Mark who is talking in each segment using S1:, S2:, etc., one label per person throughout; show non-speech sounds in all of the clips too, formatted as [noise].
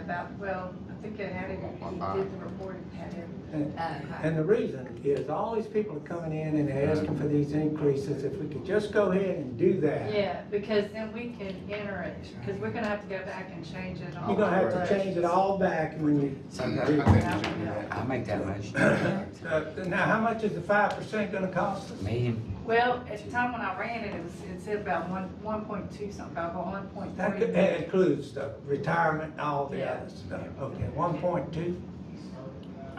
S1: about, well, I think it had it, he did the report, it had
S2: And-
S3: uh,
S1: it.
S2: And the reason is all these people are coming in and they're asking for these increases, if we could just go ahead and do that.
S1: Yeah, because then we can enter it, because we're gonna have to go back and change it all.
S2: You're gonna have to change it all back when you.
S4: Sometimes I think we should do that.
S5: I'll make that
S2: [coughs]
S5: motion.
S2: Uh, [coughs] Now, how much is the five percent gonna cost us?
S5: Million,
S1: Well, at the time when I ran it, it was, it said about one, one point two something, about one point
S2: That
S1: three.
S2: could- that includes the retirement and all the
S1: Yeah.
S2: other stuff, okay, one point two?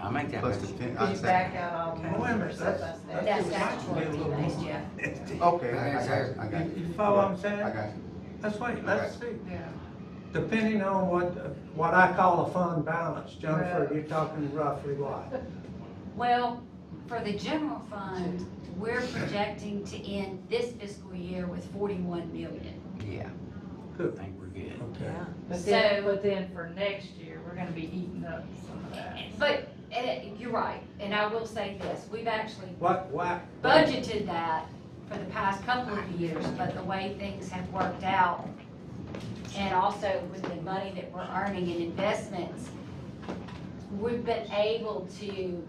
S5: I'll make that
S4: Plus the
S5: motion.
S4: pen, I
S1: Could you back
S4: second.
S1: out all
S2: Wait a
S1: the
S2: minute, that's,
S1: surplus
S2: that's.
S1: there?
S2: just-
S3: That's
S2: might be a little
S3: actually
S2: more.
S4: Okay, I got you, I got
S2: You-
S4: you.
S2: you follow what I'm saying?
S4: I got you.
S2: Let's wait, let's see,
S1: Yeah,
S2: depending on what, what I call a fund balance, Jennifer,
S1: Right.
S2: you're talking roughly what?
S3: Well, for the general fund, we're projecting to end this fiscal year with forty-one million.
S5: Yeah, I
S2: Good,
S5: think we're good.
S2: okay.
S1: but then,
S3: So-
S1: but then for next year, we're gonna be eating up some of that.
S3: But, eh, you're right, and I will say this, we've actually
S2: What, what?
S3: budgeted that for the past couple of years, but the way things have worked out, and also with the money that we're earning in investments, we've been able to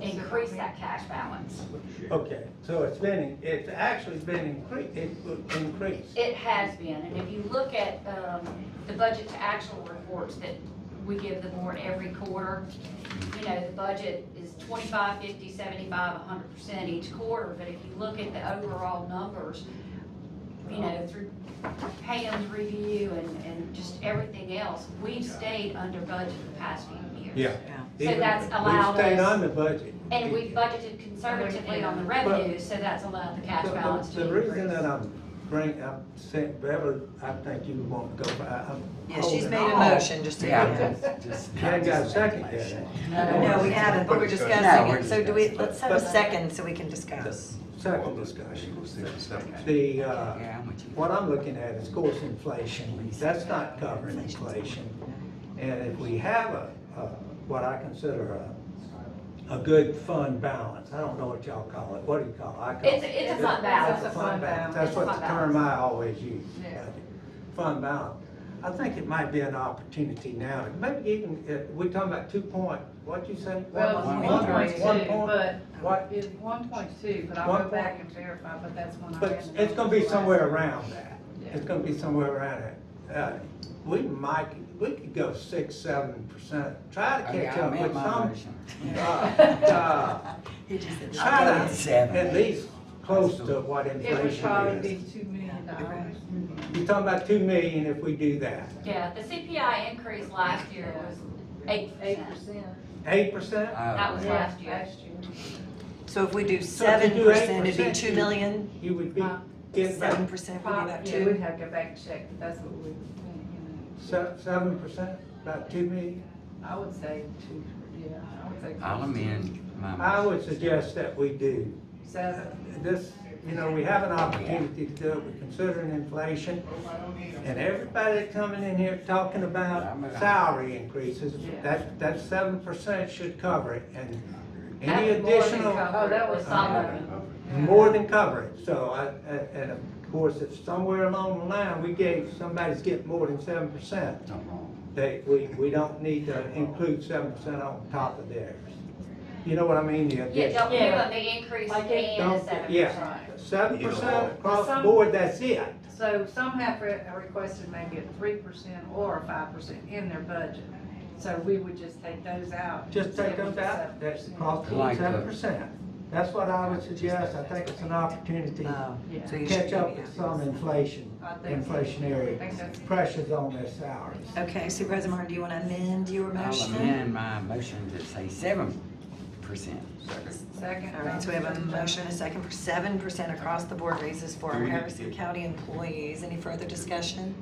S3: increase that cash balance.
S2: Okay, so it's been, it's actually been increased, it would increase.
S3: It has been, and if you look at um, the budget to actual reports that we give the board every quarter, you know, the budget is 25, 50, 75, 100% each quarter, but if you look at the overall numbers, you know, through Pam's review and, and just everything else, we've stayed under budget the past few years.
S2: Yeah.
S3: So that's
S2: Even-
S3: allowed
S2: We stayed
S3: us-
S2: on the budget.
S3: And we budgeted conservatively on the revenue, so that's allowed the cash
S2: The- the-
S3: balance to
S2: The reason
S3: increase.
S2: that I'm bringing, I'm saying, Beverly, I think you want to go, but I- I'm.
S6: Yeah, she's
S2: holding
S6: made a
S2: off.
S6: motion just to.
S5: Yeah, just, just.
S2: You ain't got a second yet.
S6: No, we haven't, but we're discussing
S5: No, we're
S6: it, so do we,
S5: discussing.
S6: let's have a second so we can discuss.
S2: Second discussion.
S4: discussion.
S2: The, uh,
S5: Yeah, I'm with you.
S2: what I'm looking at is, of course, inflation. That's not covering inflation. And if we have a, a- what I consider a, a good fund balance, I don't know what y'all call it, what do you call it? I call
S3: It's, a- it's a fund balance.
S2: It's a
S1: It's a fund
S2: fund
S1: balance.
S2: balance, that's
S3: It's
S2: what
S3: a
S2: the
S3: fund
S2: term I always use.
S1: Yeah.
S2: Fund balance. I think it might be an opportunity now, maybe even, uh, we're talking about two point, what'd you say?
S1: Well,
S5: One
S1: one point
S5: point.
S2: One
S1: two,
S2: point?
S1: but,
S2: What?
S1: it's one point two, but I'll
S2: One
S1: go back and verify, but that's when I.
S2: But
S1: ran
S2: it's-
S1: the
S2: it's gonna be
S1: numbers
S2: somewhere
S1: last.
S2: around that. It's gonna be somewhere around that. Uh, We might, we could go six, seven percent, try to
S5: Okay,
S2: catch
S5: Oh, I
S2: up
S5: made
S2: with
S5: my
S2: some.
S5: motion. [laughs]
S2: uh, uh, Try
S5: I'll go with
S2: to,
S5: seven.
S2: at least close to what
S1: It would
S2: inflation
S1: probably
S2: is.
S1: be two million dollars.
S2: You're talking about two million if we do that.
S3: Yeah, the CPI increase last year was eight
S1: Eight
S3: percent.
S1: percent.
S2: Eight percent?
S3: That
S5: Oh,
S3: was
S5: yeah.
S3: last year.
S1: Last year.
S6: So if we
S2: So if
S6: do
S2: you
S6: seven
S2: do
S6: percent, it'd be
S2: 8%,
S6: two million,
S2: You would be
S1: Huh?
S2: getting
S6: seven
S2: about
S6: percent would be
S1: Probably,
S6: about
S1: yeah, we'd
S6: two.
S1: have to go back and check, but that's what we, you
S2: seven percent, about two million.
S1: know, I would say two, yeah, I would say.
S5: I'll amend my
S2: I
S5: motion.
S2: would suggest that we do. Uh,
S1: Seven.
S2: This, you know, we have an opportunity to do it, we're considering inflation. And everybody coming in here talking about salary increases, that, that seven percent should cover it. And any
S3: That's more than
S2: additional,
S3: covered. Uh,
S1: Oh, that was
S3: Solid.
S2: more than cover it. So I, I- and of course, if somewhere along the line, we gave, somebody's getting more than seven percent,
S4: Not wrong.
S2: they, we, we don't need to include seven percent on top of theirs. You know what I mean? The
S3: Yeah,
S2: additional.
S3: don't give up the increase
S1: Like
S3: and
S1: it-
S3: the seven percent.
S2: Yeah, seven percent across the
S1: Some-
S2: board, that's it.
S1: So some have re- requested maybe a three percent or a five percent in their budget. So we would just take those out.
S2: Just take
S1: Seven
S2: those out,
S1: percent.
S2: that's across the board,
S5: Like
S2: seven
S5: the-
S2: percent. That's what I would suggest, I think it's an opportunity to
S6: Oh,
S1: Yeah.
S6: so you should
S2: catch up
S6: be-
S2: with some inflation,
S1: I think so. I think that's-
S2: inflationary pressures on their salaries.
S6: Okay, Supervisor Martin, do you want to amend your
S5: I'll
S6: motion?
S5: amend my motion to say seven percent.
S1: Second.
S6: All right, so we have a motion, a second for seven percent across the board raises for
S4: Do
S6: our
S4: we need to
S6: Harrison
S4: get-
S6: County employees. Any further discussion?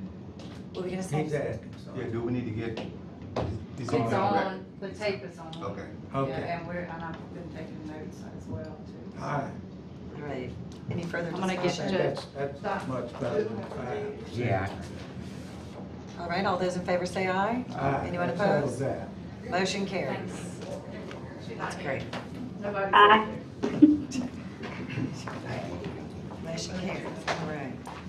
S6: What were we gonna
S2: He's
S6: say?
S2: asking,
S4: Yeah,
S2: sorry.
S4: do we need to get?
S1: It's on, the tape is on.
S4: Okay.
S2: Okay.
S1: Yeah, and we're, and I've been taking notes as well too.
S2: All right,
S6: All right, any further
S3: I'm gonna get
S2: I think
S6: discussion?
S3: to-
S2: that's, that's much better than five.
S5: Yeah,
S6: All right, all those in favor say aye.
S2: All right,
S6: Anyone
S2: let's hold
S6: opposed?
S2: that.
S6: Motion carries. That's great.
S1: Nobody's up there.
S6: Motion carries, all right.